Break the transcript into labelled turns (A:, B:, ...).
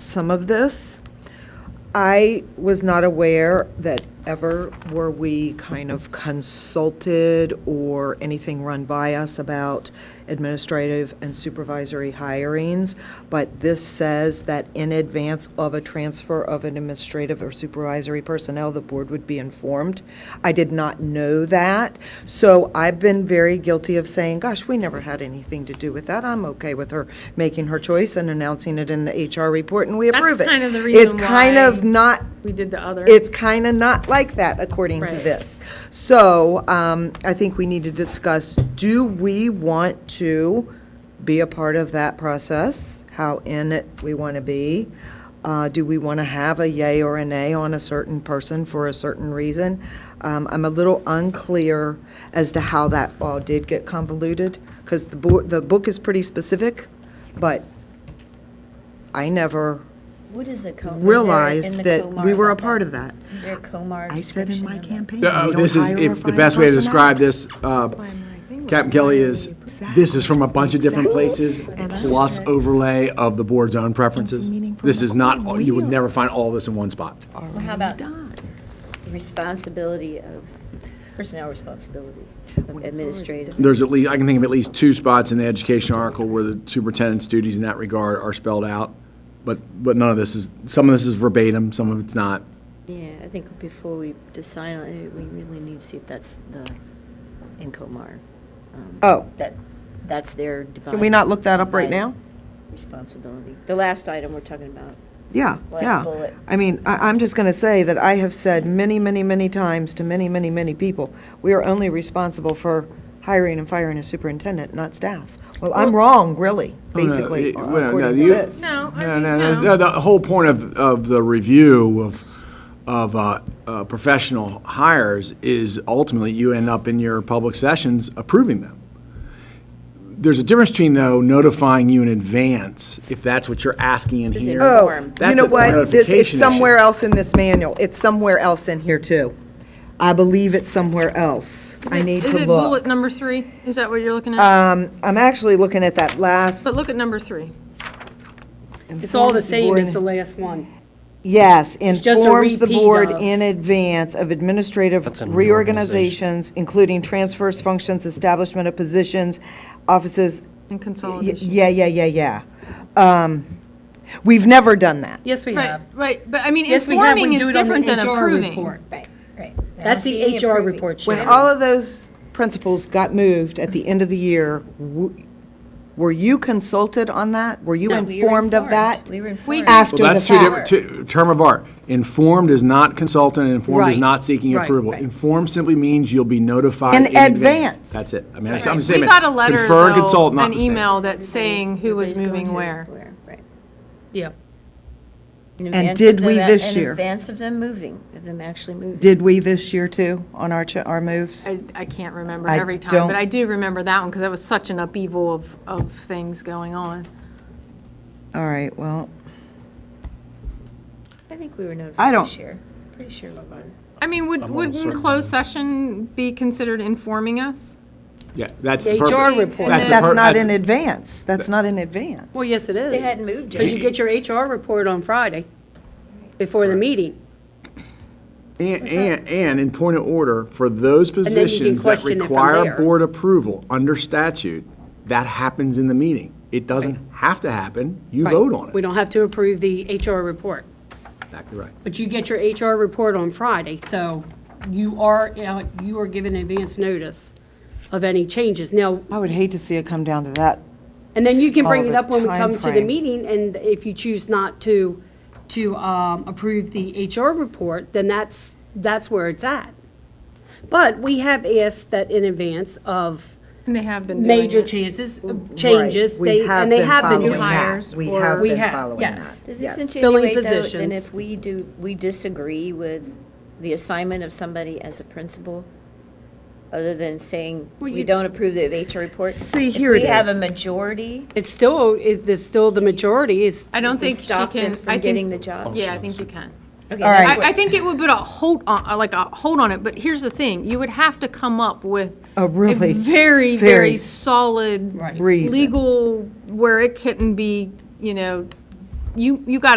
A: some of this. I was not aware that ever were we kind of consulted or anything run by us about administrative and supervisory hirings, but this says that in advance of a transfer of an administrative or supervisory personnel, the board would be informed. I did not know that, so I've been very guilty of saying, gosh, we never had anything to do with that. I'm okay with her making her choice and announcing it in the HR report, and we
B: That's
A: approve it.
B: kind of the reason
A: It's kind
B: why-
A: of not
B: We did the other.
A: it's kind of not like that, according to
B: Right.
A: this. So um, I think we need to discuss, do we want to be a part of that process? How in it we want to be? Uh, Do we want to have a yay or a nay on a certain person for a certain reason? Um, I'm a little unclear as to how that all did get convoluted, because the book, the book is pretty specific, but I never
C: What is a co? is there in the
A: realized that we
C: Comar
A: were a
C: about
A: part of that.
C: Is there a Comar
A: I said in
C: description
A: my
C: of that?
A: campaign.
D: Yeah,
A: we
D: uh,
A: don't
D: This is,
A: hire or
D: if the
A: fire
D: best way to
A: personnel.
D: describe this, uh, Captain Kelly is, this is from a bunch of different places, plus overlay of the board's own preferences.
A: meaning from
D: This
A: the
D: is not,
A: board.
D: all- you would never find all this in one spot.
C: Well, how about the responsibility of, personnel responsibility of administrative?
D: There's at least, I can think of at least two spots in the education article where the superintendent's duties in that regard are spelled out, but, but none of this is, some of this is verbatim, some of it's not.
C: Yeah, I think before we decide on it, we really need to see if that's the, in Comar. um,
A: Oh.
C: That, that's their divine.
A: Can we not look that up right now?
C: Responsibility. The last item we're talking about.
A: Yeah,
C: Last
A: yeah.
C: bullet.
A: I mean, I, I'm just going to say that I have said many, many, many times to many, many, many people, we are only responsible for hiring and firing a superintendent, not staff. Well, I'm wrong, really,
D: Oh, No, no,
A: basically,
D: it- well, no,
A: according to
D: you-
A: this.
B: No, I
D: No,
B: mean,
D: no,
B: no.
D: no, no, the whole point of, of the review of, of uh, uh, professional hires is ultimately you end up in your public sessions approving them. There's a difference between though notifying you in advance, if that's what you're asking in
C: Is it
D: here.
C: Oh,
A: Oh,
C: form.
A: you
D: That's
A: know
D: a
A: what? This,
D: notification
A: it's
D: issue.
A: somewhere else in this manual. It's somewhere else in here, too. I believe it's somewhere else. I need
B: Is
A: to
B: it bullet
A: look. Uh,
B: number three? Is that what you're looking at?
A: Um, I'm actually looking at that last.
B: But look at number three.
E: It's all the
A: Informs
E: same
A: board-
E: as the last one.
A: Yes,
E: just a
A: informs the
E: repeat
A: board
E: of-
A: in advance of administrative reorganizations, including transfers, functions, establishment of positions, offices. Y-
B: And consolidation.
A: Yeah, yeah, yeah, yeah. Um, We've never done that.
E: Yes, we
B: Right,
E: have.
B: right, but I mean,
E: Yes, we have. We
B: informing is
E: do it on the
B: different than
E: HR
B: approving.
E: report.
C: Right, right.
E: That's the HR report,
A: When
E: Shannon.
A: all of those principles got moved at the end of the year, w- were you consulted on that? Were you informed of that?
C: We were
B: We-
C: informed.
A: After the
D: Well, that's two different,
A: fact?
D: two, term of art. Informed is not consultant, and informed is
E: Right.
D: not seeking
E: Right,
D: approval.
E: right.
D: Informed simply means you'll be notified
A: In
D: in advance.
A: advance.
D: That's it. I mean, I'm just
B: We
D: saying,
B: got a letter,
D: confer and consult,
B: though,
D: not
B: an
D: the same.
B: email that's saying who was moving where.
C: Right.
E: Yeah.
C: In advance
A: did
C: of
A: we
C: them-
A: this year?
C: In advance of them moving, of them actually moving.
A: Did we this year, too, on our, cha- our moves?
B: I, I can't remember
A: I
B: every time,
A: don't-
B: but I do remember that one because that was such an upheaval of, of things going on.
A: All right, well,
C: I think we were
A: I
C: notified
A: don't-
C: this year. Pretty sure we were.
B: I mean, would, wouldn't closed session be considered informing us?
D: Yeah, that's the
E: The
D: purpose.
E: HR report.
D: That's the
A: that's
D: per-
A: not
D: that's-
A: in advance. That's not in advance.
E: Well, yes, it is.
C: They hadn't moved
E: Because you
C: yet.
E: get your HR report on Friday before the meeting.
D: And, and, and in point of order, for those
E: then you can
D: positions that
E: question it from
D: require
E: there.
D: board approval under statute, that happens in the meeting. It doesn't have to happen, you vote on
E: We
D: it.
E: don't have to approve the HR report.
D: Exactly right.
E: But you get your HR report on Friday, so you are, you know, you are given advance notice of any changes. Now,
A: I would hate to see it come down to that.
E: And then you can
A: All
E: bring it
A: the
E: up when we come to the
A: timeframe.
E: meeting, and if you choose not to, to um, approve the HR report, then that's, that's where it's at. But we have asked that in advance of
B: And they have been doing
E: major
B: it.
E: changes, changes,
A: We
E: they,
A: have
E: and they
A: been
E: have been
A: following
E: doing
A: that.
E: that.
B: hires
A: We
B: or-
A: have
E: We
A: been
E: have-
A: following
E: yes.
A: that.
C: Does this
A: Yes.
E: Filling
C: insinuate, though, then
E: positions.
C: if we do, we disagree with the assignment of somebody as a principal, other than saying we don't approve the HR report?
A: See, here it
C: If we have a
A: is.
C: majority,
E: It's still, is, there's still the majority is,
B: I don't
C: we
B: think she
C: stop them
B: can, I
C: from
B: think.
C: getting the job?
B: Yeah, I think you can.
C: Okay,
A: All
C: that's
A: right.
C: what-
B: I, I think it would put a hold on, uh, like a hold on it, but here's the thing, you would have to come up with.
A: A really very
B: Very, very solid.
A: Reason.
B: Legal, where it couldn't be, you know, you, you gotta